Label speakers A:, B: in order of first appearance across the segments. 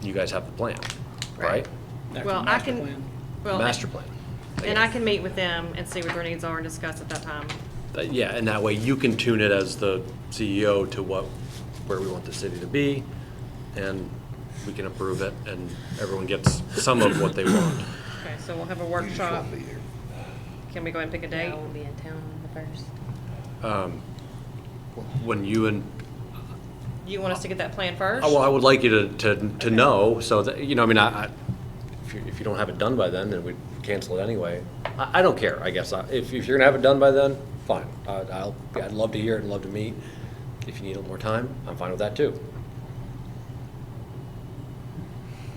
A: you guys have the plan,
B: Right.
A: right?
C: After
D: Well, I
C: master
D: can,
C: plan.
D: well.
A: Master plan.
D: And I can meet with them and see what their needs are and discuss at that time.
A: But yeah, and that way you can tune it as the CEO to what, where we want the city to be, and we can approve it, and everyone gets some of what they want.
D: Okay, so we'll have a workshop. Can we go ahead and pick a date?
E: I won't be in town on the first.
A: Um, When you and,
D: You want us to get that plan first?
A: oh, well, I would like you to, to, to know, so that, you know, I mean, I, I- if you, if you don't have it done by then, then we cancel it anyway. I, I don't care, I guess, I- if, if you're gonna have it done by then, fine, I, I'll, I'd love to hear it, and love to meet. If you need a little more time, I'm fine with that too.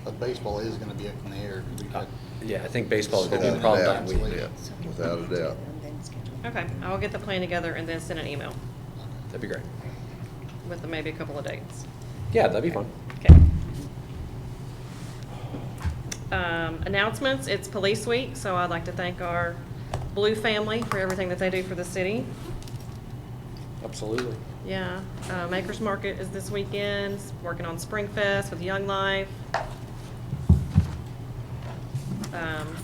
F: But baseball is gonna be up in the air.
B: Uh,
F: We've
B: Ah.
F: got-
A: Yeah, I think baseball is gonna be a
F: So-
A: problem that week.
F: Yeah,
B: without a doubt.
D: Okay, I will get the plan together and then send an email
A: That'd be great.
D: with maybe a couple of dates.
A: Yeah, that'd be fun.
D: Okay. Um, announcements, it's Police Week, so I'd like to thank our Blue family for everything that they do for the city.
A: Absolutely.
D: Yeah, uh, Makers Market is this weekend, working on Spring Fest with Young Life. Um,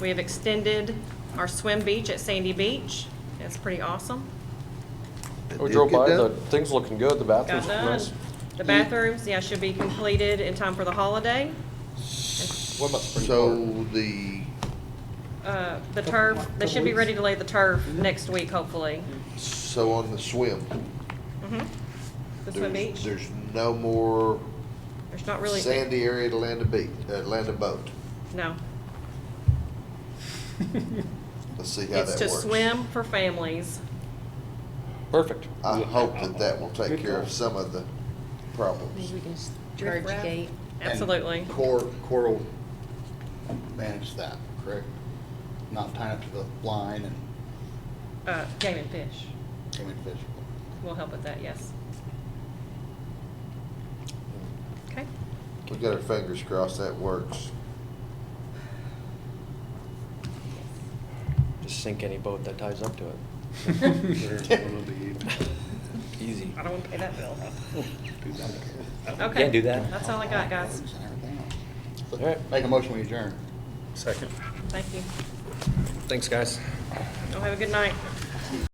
D: We have extended our swim beach at Sandy Beach. It's pretty awesome.
A: Oh, We
B: Did
A: drove
B: get
A: by,
B: that?
A: the thing's looking good, the
D: Got
A: bathrooms look
D: done.
A: nice.
D: The bathrooms, yeah, should be completed in time for the holiday.
A: What about Supreme Court?
B: So the,
D: Uh, The turf, they should be ready to lay the turf next week, hopefully.
B: so on the swim.
D: Mhm. The swim
B: there's-
D: beach,
B: There's no more
D: there's not really.
B: sandy area to land a beat, uh, land a boat.
D: No.
B: Let's see how
D: It's to
B: that works.
D: swim for families.
A: Perfect.
B: I hope that that will take care of some of the problems.
E: Maybe we can just
D: Riff
E: merge
D: raff?
E: gate.
F: And
D: Absolutely.
F: Cor, Cor will manage that, correct? Not tying up to the line and
D: Uh, Game and fish.
F: coming fish.
D: We'll help with that, yes. Okay.
B: We got our fingers crossed that works.
A: Just sink any boat that ties up to it. Easy.
D: I don't want to pay that bill.
A: Can't do
D: Okay.
A: that.
D: That's all I got, guys.
F: And everything else.
A: All right.
F: Make a motion, we adjourn.
A: Second.
D: Thank you.
A: Thanks, guys.
D: Y'all have a good night.